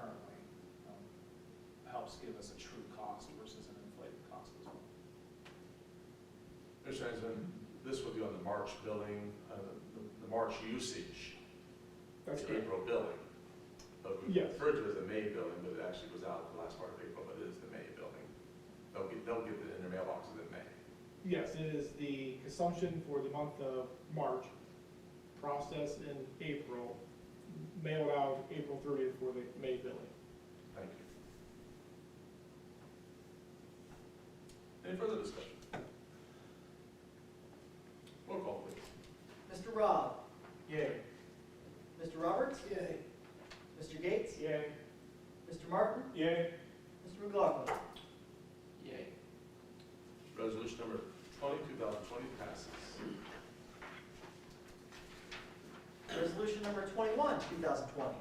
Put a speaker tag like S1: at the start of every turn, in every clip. S1: um, helps give us a true cost versus an inflated cost as well.
S2: Mr. Hanson, this would be on the March billing, uh, the- the March usage,
S3: That's
S2: the
S3: good.
S2: April billing. But we
S3: Yes.
S2: refer to it as the May billing, but it actually goes out the last part of April, but it is the May billing. They'll get, they'll get it in their mailboxes in May.
S3: Yes, it is the consumption for the month of March, processed in April, mailed out April thirtieth for the May billing.
S2: Thank you. Any further discussion? Roll call, please.
S4: Mr. Rob?
S3: Yay.
S4: Mr. Roberts?
S3: Yay.
S4: Mr. Gates?
S3: Yay.
S4: Mr. Martin?
S3: Yay.
S4: Mr. McLaughlin?
S1: Yay.
S2: Resolution number twenty, two thousand twenty passes.
S4: Resolution number twenty-one, two thousand twenty,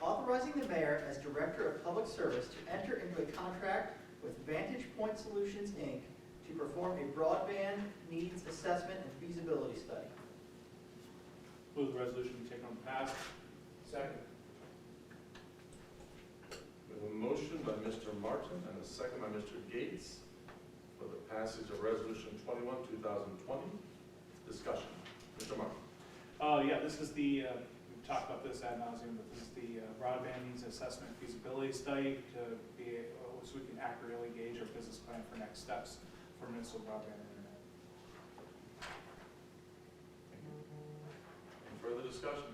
S4: authorizing the mayor as director of public service to enter into a contract with Vantage Point Solutions, Inc. to perform a broadband needs assessment and feasibility study.
S1: Move the resolution be taken on pass. Second.
S2: We have a motion by Mr. Martin and a second by Mr. Gates for the passage of Resolution 21, 2020. Discussion. Mr. Martin.
S1: Oh, yeah, this is the, uh, we've talked about this ad nauseum, but this is the uh, broadband needs assessment feasibility study to be, uh, so we can accurately gauge our business plan for next steps for municipal broadband internet.
S2: Thank you. Any further discussion?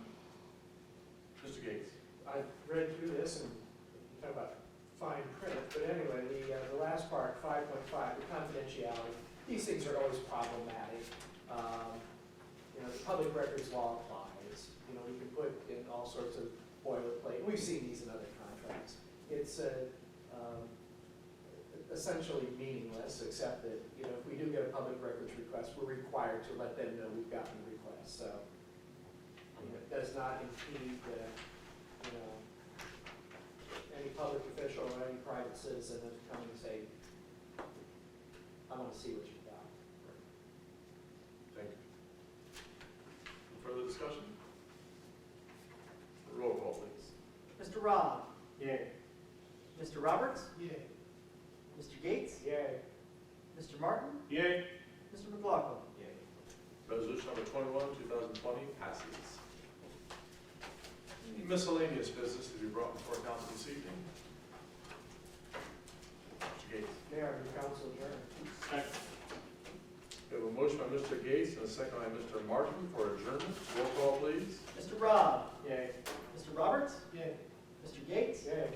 S2: Mr. Gates.
S5: I read through this and you talk about fine print, but anyway, the, uh, the last part, five point five, the confidentiality, these things are always problematic. Um, You know, the public records law applies, you know, we can put in all sorts of boilerplate, we've seen these in other contracts. It's uh, um, essentially meaningless, except that, you know, if we do get a public records request, we're required to let them know we've gotten the request, so. you know, It does not impede the you know, any public official or any private citizen that's come and say, I want to see what you've got.
S2: Thank you. Any further discussion? Roll call, please.
S4: Mr. Rob?
S3: Yay.
S4: Mr. Roberts?
S3: Yay.
S4: Mr. Gates?
S3: Yay.
S4: Mr. Martin?
S1: Yay.
S4: Mr. McLaughlin?
S2: Resolution number 21, 2020 passes. Any Miscellaneous business to be brought before council this evening? Mr. Gates.
S5: Mayor, your council adjourned.
S1: Second.
S2: We have a motion by Mr. Gates and a second by Mr. Martin for adjournment. Roll call, please.
S4: Mr. Rob?
S3: Yay.
S4: Mr. Roberts?
S3: Yay.
S4: Mr. Gates?
S3: Yay.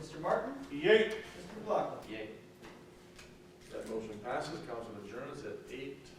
S4: Mr. Martin?
S1: Yay.
S4: Mr. McLaughlin?
S2: That motion passes. Council adjourns at eight